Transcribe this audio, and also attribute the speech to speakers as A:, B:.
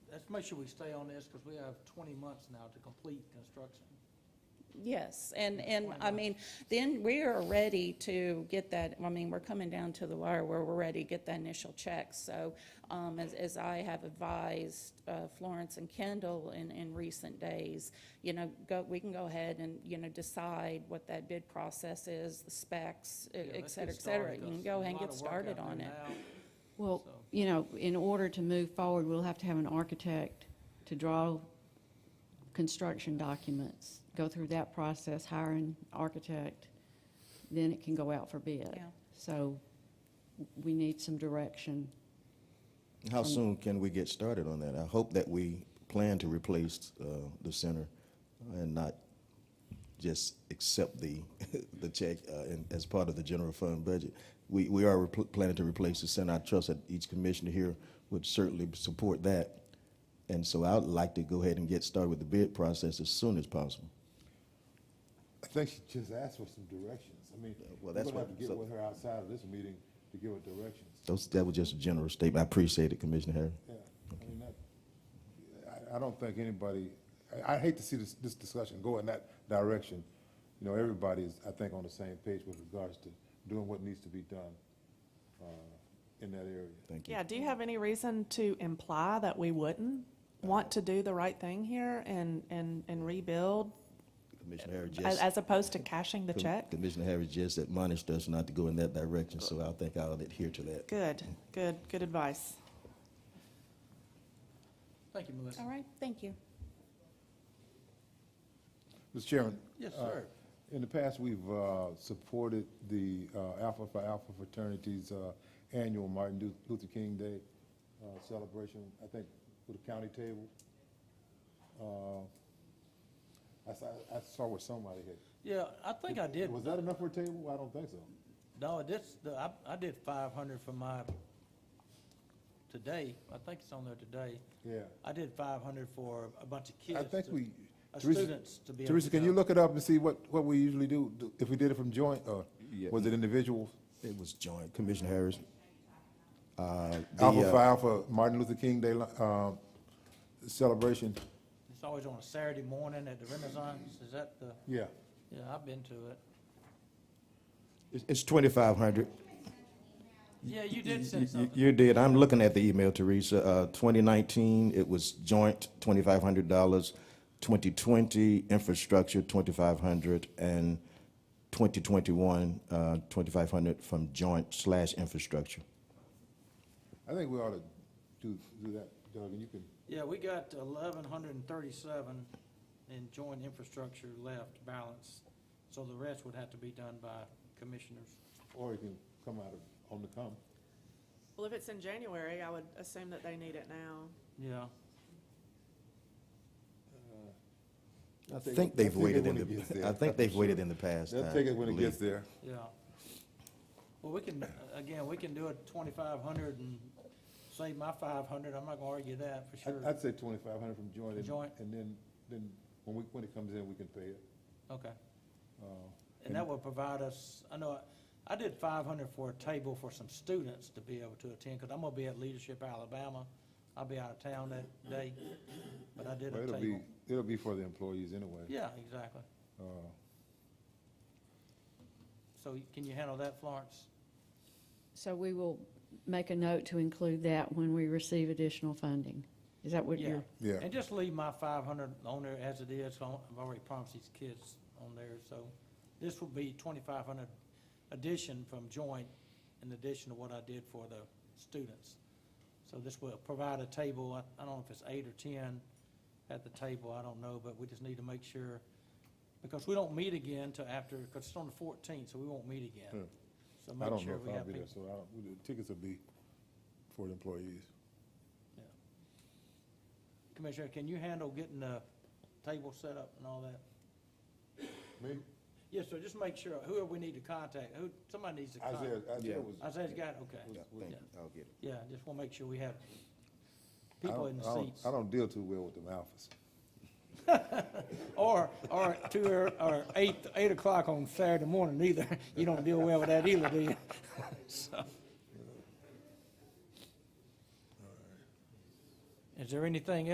A: make sure we stay on this, because we have twenty months now to complete construction.
B: E, Yes, and, and, I
A: Twenty
B: mean, then we are ready to get that, I mean, we're coming down to the wire where we're ready to get that initial check. So, um, as, as I have advised, uh, Florence and Kendall in, in recent days, you know, go, we can go ahead and, you know, decide what that bid process is, the specs, e-
A: Yeah,
B: et
A: let's
B: cetera,
A: get
B: et cetera.
A: started.
B: You can
A: There's
B: go
A: a
B: ahead and
A: lot
B: get
A: of work out
B: started
A: there
B: on it.
A: now.
C: Well,
A: So-
C: you know, in order to move forward, we'll have to have an architect to draw construction documents, go through that process, hire an architect, then it can go out for bid.
B: Yeah.
C: So we need some direction.
D: How soon can we get started on that? I hope that we plan to replace uh, the center and not just accept the, the check uh, in- as part of the general fund budget. We, we are repl- planning to replace the center. I trust that each commissioner here would certainly support that. And so I'd like to go ahead and get started with the bid process as soon as possible.
E: I think she just asked for some directions. I mean, we're
D: Uh, well, that's
E: gonna have
D: what-
E: to get
D: so-
E: with her outside of this meeting to give her directions.
D: Those, that was just a general statement. I appreciate it, Commissioner Harris.
E: Yeah, I mean, that, I, I don't think anybody, I, I hate to see this, this discussion go in that direction. You know, everybody is, I think, on the same page with regards to doing what needs to be done, uh, in that area.
D: Thank you.
F: Yeah, do you have any reason to imply that we wouldn't want to do the right thing here and, and, and rebuild
D: Commissioner Harris
F: as,
D: just.
F: as opposed to cashing the
D: Com-
F: check?
D: Commissioner Harris just admonished us not to go in that direction, so I think I'll adhere to that.
F: Good, good, good advice.
A: Thank you, Melissa.
B: All right, thank you.
E: Mr. Chairman?
A: Yes,
E: uh,
A: sir.
E: In the past, we've uh, supported the uh, Alpha Phi Alpha fraternity's uh, annual Martin Lu- Luther King Day uh, celebration, I think, with a county table. Uh, I saw, I saw where somebody had.
A: Yeah, I think I did,
E: Was that enough for a table? I don't think so.
A: no, this, the- I, I did five hundred for my, today, I think it's on there today.
E: Yeah.
A: I did five hundred for a bunch of kids.
E: I think
A: to-
E: we.
A: uh,
E: Teresa-
A: students to be able
E: Teresa,
A: to
E: can
A: go.
E: you look it up and see what, what we usually do, do- if we did it from joint, or
D: Yeah.
E: was it individuals?
D: It was joint, Commissioner Harris. uh, the,
E: Alpha
D: uh,
E: Phi Alpha Martin Luther King Day uh, celebration.
A: It's always on a Saturday morning at the Renaissance, is that the,
E: Yeah.
A: yeah, I've been to it.
D: It's, it's twenty-five hundred.
A: Yeah, you did send something,
D: You did, I'm looking at the email, Teresa, uh, twenty nineteen, it was joint, twenty-five hundred dollars. Twenty twenty, infrastructure, twenty-five hundred, and twenty twenty-one, uh, twenty-five hundred from joint slash infrastructure.
E: I think we ought to do, do that, Doug, and you can,
A: yeah, we got eleven hundred and thirty-seven in joint infrastructure left balance, so the rest would have to be done by commissioners.
E: or you can come out of, on the come.
F: Well, if it's in January, I would assume that they need it now.
A: Yeah, Uh,
D: I
E: think-
D: think
E: I
D: they've
E: think it
D: waited in
E: when it gets
D: the,
E: there.
D: I think they've waited in the past. uh,
E: They'll
D: I
E: take it when it
D: believe.
E: gets there.
A: yeah. Well, we can, again, we can do it twenty-five hundred and save my five hundred, I'm not gonna argue that for
E: I'd, I'd
A: sure.
E: say twenty-five hundred from joint, and-
A: Joint.
E: and then, then when we, when it comes in, we can pay it.
A: Okay,
E: Uh,
A: and that will provide us, I know, I- I did five hundred for a table for some students to be able to attend, because I'm gonna be at Leadership Alabama. I'll be out of town that day, but I did
E: Well,
A: a
E: it'll be,
A: table.
E: it'll be for the employees anyway.
A: Yeah, exactly.
E: Uh,
A: So can you handle that, Florence?
C: So we will make a note to include that when we receive additional funding. Is that what
A: Yeah.
C: you're?
E: Yeah,
A: And just leave my five hundred on there as it is, so I've already promised these kids on there, so this will be twenty-five hundred addition from joint in addition to what I did for the students. So this will provide a table, I, I don't know if it's eight or ten at the table, I don't know, but we just need to make sure, because we don't meet again till after, because it's on the fourteenth, so we won't meet again.
E: Hmm.
A: So
E: I
A: make
E: don't know
A: sure we
E: if I'll
A: have
E: be there,
A: people.
E: so I don't, the tickets will be for the employees.
A: Commissioner, can you handle getting the table set up and all that?
E: Me,
A: Yes, sir, just make sure, whoever we need to contact, who, somebody needs to contact.
E: Isaiah,
D: Yeah.
E: Isaiah was.
A: Isaiah's got, okay,
D: Yeah, thank you. I'll get it.
A: yeah, just wanna make sure we have
E: I
A: people
E: don't-
A: in
E: I
A: the
E: don't-
A: seats.
E: I don't deal too well with them alphas.
A: Or, or two, or, or eight, eight o'clock on Saturday morning either, you don't deal well with that either, do you? So. Is there anything